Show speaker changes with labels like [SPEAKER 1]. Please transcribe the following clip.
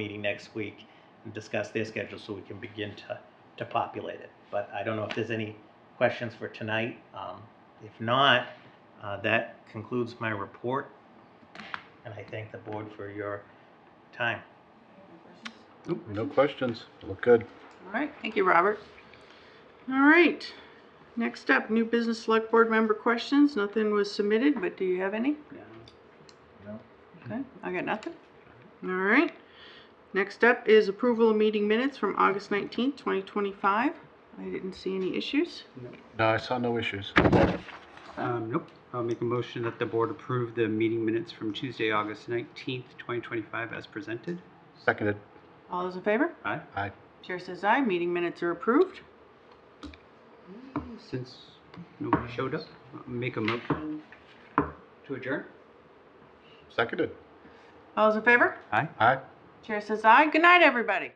[SPEAKER 1] meeting next week and discuss their schedule so we can begin to, to populate it. But I don't know if there's any questions for tonight. Um, If not, uh, that concludes my report. And I thank the board for your time.
[SPEAKER 2] Nope, No questions. Look good.
[SPEAKER 3] All right, thank you, Robert. All right, next up, new business select board member questions. Nothing was submitted, but do you have any? No. Okay, I got nothing. All right, next up is approval of meeting minutes from August nineteenth, twenty twenty-five. I didn't see any issues.
[SPEAKER 2] No, I saw no issues.
[SPEAKER 4] Um, nope. I'll make a motion that the board approve the meeting minutes from Tuesday, August nineteenth, twenty twenty-five as presented.
[SPEAKER 2] Seconded.
[SPEAKER 3] All those in favor?
[SPEAKER 4] Aye.
[SPEAKER 2] Aye.
[SPEAKER 3] Chair says aye, meeting minutes are approved.
[SPEAKER 4] Since nobody showed up, I'll make a motion to adjourn.
[SPEAKER 2] Seconded.
[SPEAKER 3] All those in favor?
[SPEAKER 4] Aye.
[SPEAKER 2] Aye.
[SPEAKER 3] Chair says aye. Good night, everybody.